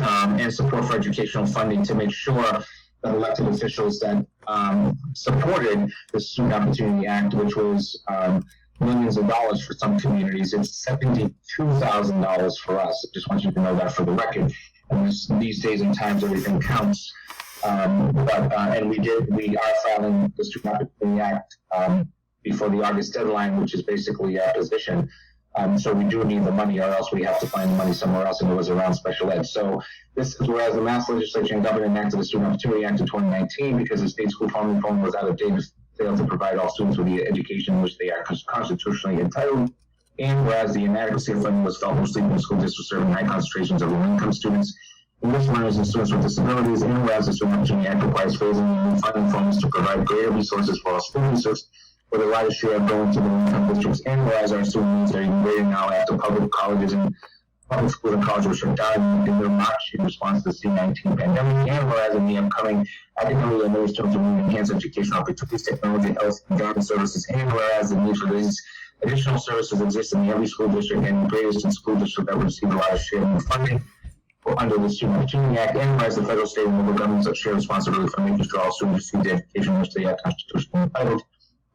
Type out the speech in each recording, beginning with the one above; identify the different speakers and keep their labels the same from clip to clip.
Speaker 1: um, and support for educational funding to make sure that elected officials that um, supported the Student Opportunity Act, which was um, millions of dollars for some communities, it's $72,000 for us. I just want you to know that for the record. And this, these days and times, everything counts. Um, but, uh, and we did, we are filing the Student Opportunity Act um, before the August deadline, which is basically our position. Um, so we do need the money, or else we have to find the money somewhere else, and it was around special ed. So this is whereas the Mass Legislature and Governor enacted the Student Opportunity Act of 2019 because the state school funding reform was out of date and failed to provide all students with the education which they are cons- constitutionally entitled. And whereas the inadequacy of funding was felt mostly in school districts serving high concentrations of low-income students, English learners and students with disabilities, and whereas the Student Opportunity Act requires phasing new funding forms to provide greater resources for all school districts, with a larger share of going to the low-income districts, and whereas our student needs are even greater now after public colleges and public schools and colleges were shut down in their March in response to the C-19 pandemic, and whereas in the upcoming academic and administrative term, we enhance educational opportunities, technology, health, and guidance services, and whereas the need for these additional services exist in every school district and greatest in school district that would receive a large share of funding for- under the Student Opportunity Act, and whereas the federal, state, and local governments have shared responsibility for making sure all students receive the education which they are constitutionally entitled,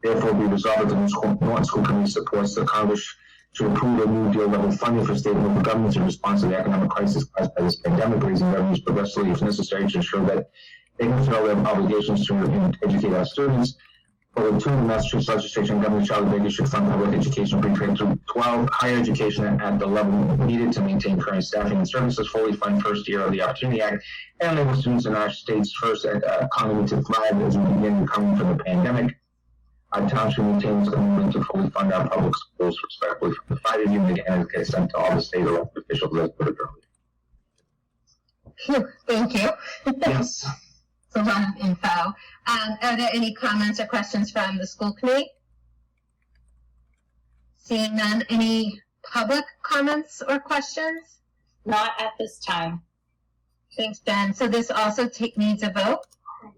Speaker 1: Therefore, we resolve that the North School- North School Committee supports the Congress to approve a new deal level funding for state and local governments in response to the economic crisis caused by this pandemic, raising revenues progressively if necessary to ensure that they fulfill their obligations to educate our students. Article two, the Massachusetts legislature and Governor Charlie Baker should fund public education pre-K through twelve, higher education at the level needed to maintain current staffing and services, fully fund first year of the Opportunity Act, and enable students in our state's first uh, economy to thrive as we begin recovering from the pandemic. Our town should maintain its commitment to fully fund our public schools respectfully from the fighting union and it gets sent to all the state elected officials as per the
Speaker 2: Thank you.
Speaker 1: Yes.
Speaker 2: It's a lot of info. Um, are there any comments or questions from the school committee? Seeing none, any public comments or questions?
Speaker 3: Not at this time.
Speaker 2: Thanks, Ben. So this also take, needs a vote?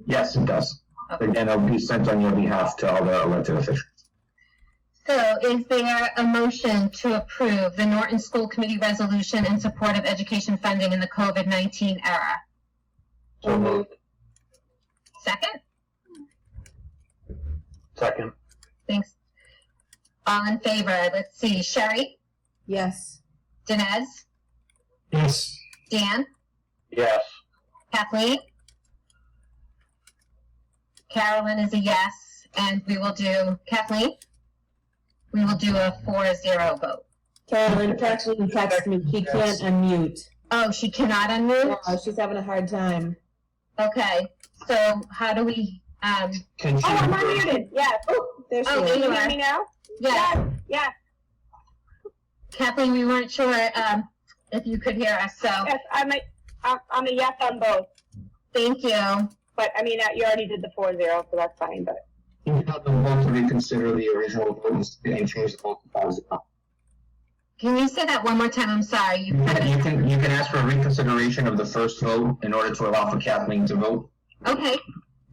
Speaker 1: Yes, it does. Again, it'll be sent on your behalf to all the elected officials.
Speaker 2: So is there a motion to approve the Norton School Committee resolution in support of education funding in the COVID-19 era?
Speaker 1: So moved.
Speaker 2: Second?
Speaker 1: Second.
Speaker 2: Thanks. All in favor? Let's see. Sherry?
Speaker 3: Yes.
Speaker 2: Dinesh?
Speaker 1: Yes.
Speaker 2: Dan?
Speaker 1: Yes.
Speaker 2: Kathleen? Carolyn is a yes, and we will do, Kathleen? We will do a four zero vote.
Speaker 4: Carolyn, Kathleen texted me. She can't unmute.
Speaker 2: Oh, she cannot unmute?
Speaker 4: Oh, she's having a hard time.
Speaker 2: Okay, so how do we, um,
Speaker 1: Can
Speaker 5: Oh, I'm
Speaker 1: you,
Speaker 5: unmuted. Yeah. Oh, there she
Speaker 2: Oh,
Speaker 5: is.
Speaker 2: there
Speaker 5: Can
Speaker 2: you
Speaker 5: you
Speaker 2: are.
Speaker 5: hear me now?
Speaker 2: yeah,
Speaker 5: Yeah.
Speaker 2: Kathleen, we weren't sure, um, if you could hear us, so
Speaker 5: Yes. I'm a, I'm I'm a yes on both.
Speaker 2: thank you.
Speaker 5: But I mean, uh, you already did the four zero, so that's fine. But
Speaker 1: you have the vote to reconsider the original vote and change the vote to five zero.
Speaker 2: Can you say that one more time? I'm sorry. You
Speaker 1: You can, you can, you can ask for reconsideration of the first vote in order to allow for Kathleen to vote.
Speaker 2: Okay,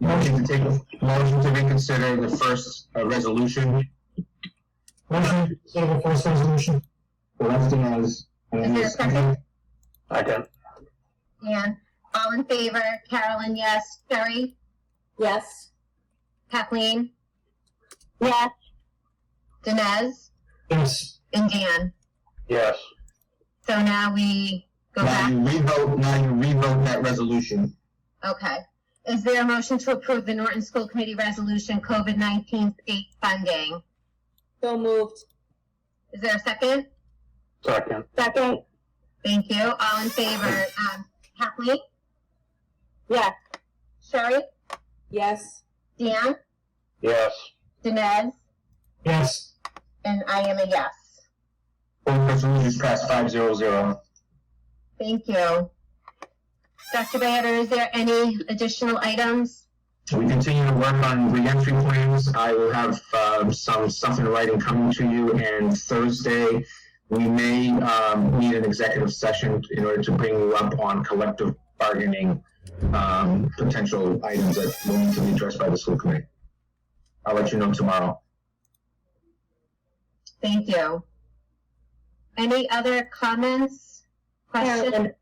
Speaker 1: Motion to take, motion to reconsider the first, uh, resolution.
Speaker 6: Motion to consider the first resolution.
Speaker 1: Left as.
Speaker 2: Is there a second?
Speaker 1: Second.
Speaker 2: Dan, all in favor? Carolyn, yes. Sherry?
Speaker 4: Yes.
Speaker 2: Kathleen?
Speaker 5: yes,
Speaker 2: Dinesh?
Speaker 6: Yes.
Speaker 2: And Dan?
Speaker 1: Yes.
Speaker 2: So now we go
Speaker 1: Now
Speaker 2: back,
Speaker 1: you revote, now you revote that resolution.
Speaker 2: okay. Is there a motion to approve the Norton School Committee Resolution COVID-19 state funding?
Speaker 4: So moved.
Speaker 2: Is there a second?
Speaker 1: Second.
Speaker 5: second.
Speaker 2: Thank you, all in favor, um, Kathleen,
Speaker 5: Yes,
Speaker 2: Sherry,
Speaker 4: Yes.
Speaker 2: Dan,
Speaker 1: Yes.
Speaker 2: Dinesh,
Speaker 6: Yes.
Speaker 2: and I am a yes.
Speaker 1: Both resolutions passed five zero zero.
Speaker 2: Thank you. Dr. Bader, is there any additional items?
Speaker 1: We continue to work on reentry plans. I will have um, some stuff in writing coming to you, and Thursday, we may um, need an executive session in order to bring you up on collective bargaining um, potential items that will need to be addressed by the school committee. I'll let you know tomorrow.
Speaker 2: Thank you. Any other comments, questions?
Speaker 4: Carolyn,